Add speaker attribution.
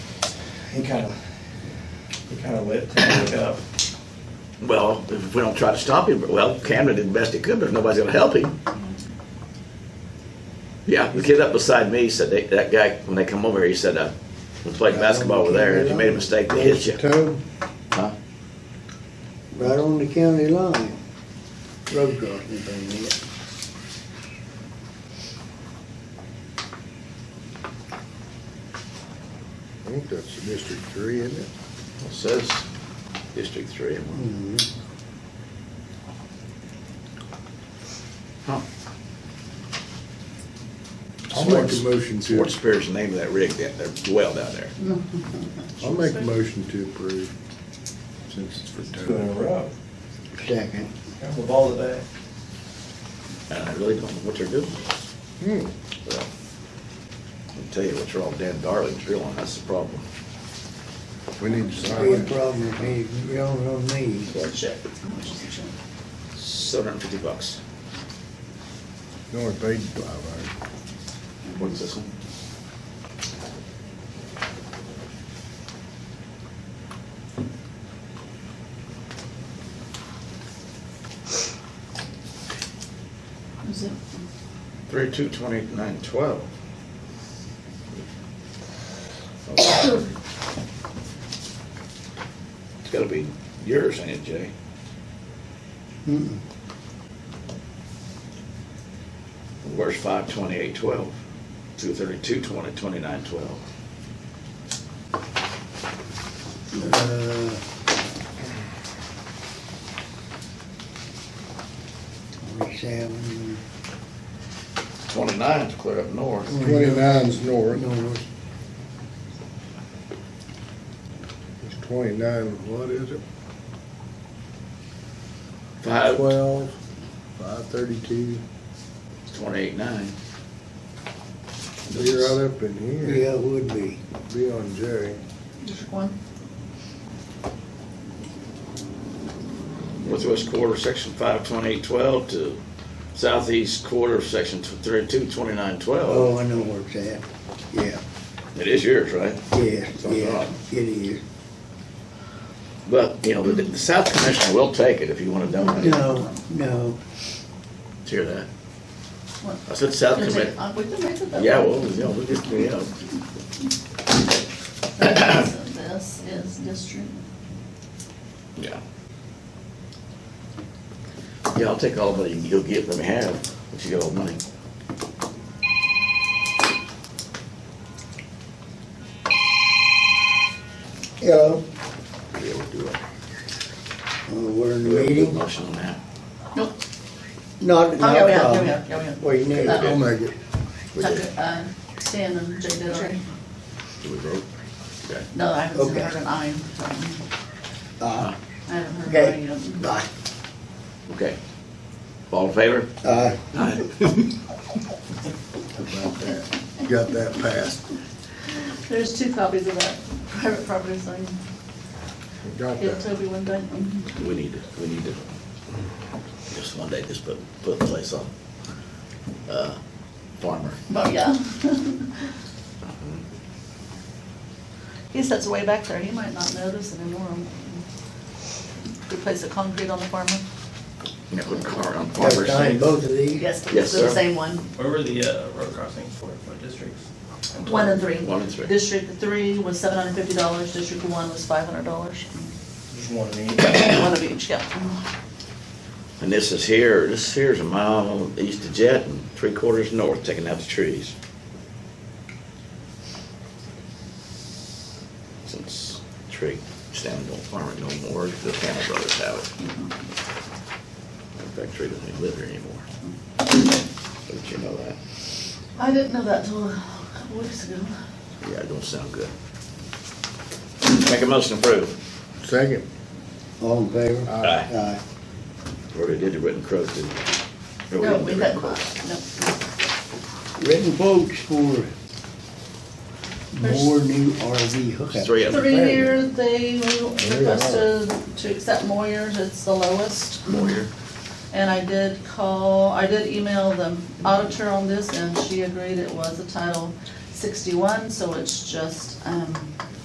Speaker 1: he kind of, he kind of lit, cleaned it up.
Speaker 2: Well, if we don't try to stop him, well, Cameron did the best he could, but if nobody's gonna help him. Yeah, the kid up beside me said, they- that guy, when they come over here, he said, uh, we played basketball over there, and if you made a mistake, they hit you.
Speaker 3: Tug,
Speaker 2: Huh?
Speaker 3: right on the county line. Road crossing thing, yeah.
Speaker 4: I think that's District Three, isn't it?
Speaker 2: It says District Three.
Speaker 3: Mhm.
Speaker 2: Huh.
Speaker 4: I'll make a motion to,
Speaker 2: Fort Spear's the name of that rig, that, that well down there.
Speaker 4: I'll make a motion to approve, since it's for
Speaker 1: Two in a
Speaker 4: Tug.
Speaker 1: row.
Speaker 3: Second.
Speaker 1: Got the ball today.
Speaker 2: And I really don't know what they're doing.
Speaker 4: Hmm.
Speaker 2: Well, I'll tell you what, you're all Dan Darling's reeling, that's the problem.
Speaker 4: We need to
Speaker 3: Be a
Speaker 4: sign it.
Speaker 3: problem if he grown on me.
Speaker 2: Well, check. Seven hundred and fifty bucks.
Speaker 4: You only paid five hours.
Speaker 2: What's this one?
Speaker 5: Is it?
Speaker 2: Three, two, twenty-nine, twelve. It's gotta be yours, ain't it, Jay?
Speaker 3: Mm-mm.
Speaker 2: Where's five, twenty-eight, twelve? Two, thirty-two, twenty, twenty-nine, twelve.
Speaker 3: Uh, Forty-seven,
Speaker 2: Twenty-nine's clear up north.
Speaker 4: Twenty-nine's north,
Speaker 3: north,
Speaker 4: it's twenty-nine, what is it?
Speaker 2: Five,
Speaker 4: Twelve, five thirty-two,
Speaker 2: twenty-eight, nine.
Speaker 4: be right up in here,
Speaker 3: yeah, it would be.
Speaker 4: be on Jerry.
Speaker 5: District one?
Speaker 2: Northwest quarter, section five, twenty-eight, twelve to southeast quarter, section thirty-two, twenty-nine, twelve.
Speaker 3: Oh, I know where it's at. Yeah,
Speaker 2: It is yours, right?
Speaker 3: yeah,
Speaker 2: So
Speaker 3: yeah,
Speaker 2: hot.
Speaker 3: it is.
Speaker 2: But, you know, the, the South Commissioner will take it if you wanna donate. it.
Speaker 3: No, no,
Speaker 2: Did you Hear that?
Speaker 5: What?
Speaker 2: I said South
Speaker 5: Is it-
Speaker 2: Commissioner.
Speaker 5: uh, We can make it that
Speaker 2: Yeah,
Speaker 5: way.
Speaker 2: well, yeah, we'll just, yeah.
Speaker 5: This is district,
Speaker 2: Yeah. Yeah, I'll take all the money you'll give, let me have, if you got all the money.
Speaker 3: hello,
Speaker 2: Yeah, we'll do it.
Speaker 3: Uh, we're in
Speaker 2: Do we have a good
Speaker 3: meeting,
Speaker 2: Motion on that.
Speaker 5: nope,
Speaker 3: not,
Speaker 5: oh, yeah,
Speaker 3: not
Speaker 5: we
Speaker 3: a
Speaker 5: are, yeah, we
Speaker 3: problem.
Speaker 5: are, yeah, we are.
Speaker 3: Well, you need,
Speaker 4: I'll make it.
Speaker 2: We did.
Speaker 5: Tucker, uh, Stan and Jay did already.
Speaker 2: Do we vote? Okay.
Speaker 5: No, I haven't
Speaker 3: Okay.
Speaker 5: heard an aye. so,
Speaker 3: uh,
Speaker 5: I haven't heard
Speaker 3: Okay.
Speaker 5: any of them.
Speaker 3: bye,
Speaker 2: Okay. All in favor?
Speaker 3: uh,
Speaker 2: Aye.
Speaker 4: About that, got that passed.
Speaker 5: There's two copies of that private property sign,
Speaker 4: Got
Speaker 5: give
Speaker 4: that.
Speaker 5: Toby one day.
Speaker 2: We need to, we need to, just one day, just put, put the place on. Uh, Farmer.
Speaker 5: But, yeah. He sits way back there, he might not notice anymore. Replace the concrete on the farmer.
Speaker 2: You know, put car on
Speaker 3: gotta
Speaker 2: Farmer's.
Speaker 3: sign both of these.
Speaker 5: Yes,
Speaker 2: Yes,
Speaker 5: it's the
Speaker 2: sir.
Speaker 5: same one.
Speaker 6: Where were the uh, road crossings for, what districts?
Speaker 5: One and three.
Speaker 2: One and three.
Speaker 5: District three was seven hundred and fifty dollars, district one was five hundred dollars.
Speaker 1: Just one of these.
Speaker 5: One of each, yeah.
Speaker 2: And this is here, this here's a mile east of Jet and three quarters north, taking out the trees. Since tree standing on farmer no more, the Campbell brothers have it. In fact, tree doesn't even live here anymore. Don't you know that?
Speaker 5: I didn't know that till a couple weeks ago.
Speaker 2: Yeah, it don't sound good. Make a motion to approve.
Speaker 4: Second,
Speaker 3: All in favor?
Speaker 2: Aye.
Speaker 3: Aye.
Speaker 2: Already did the written quote, didn't we? Or
Speaker 5: No,
Speaker 2: didn't
Speaker 5: we
Speaker 2: do
Speaker 5: had,
Speaker 2: written
Speaker 5: no.
Speaker 2: quote.
Speaker 3: Written quotes for more new RV hookup.
Speaker 2: Three of them.
Speaker 5: Three year, they
Speaker 4: are.
Speaker 5: requested to accept Moyer's, it's the lowest.
Speaker 2: More here.
Speaker 5: And I did call, I did email the auditor on this, and she agreed it was a Title sixty-one, so it's just, um,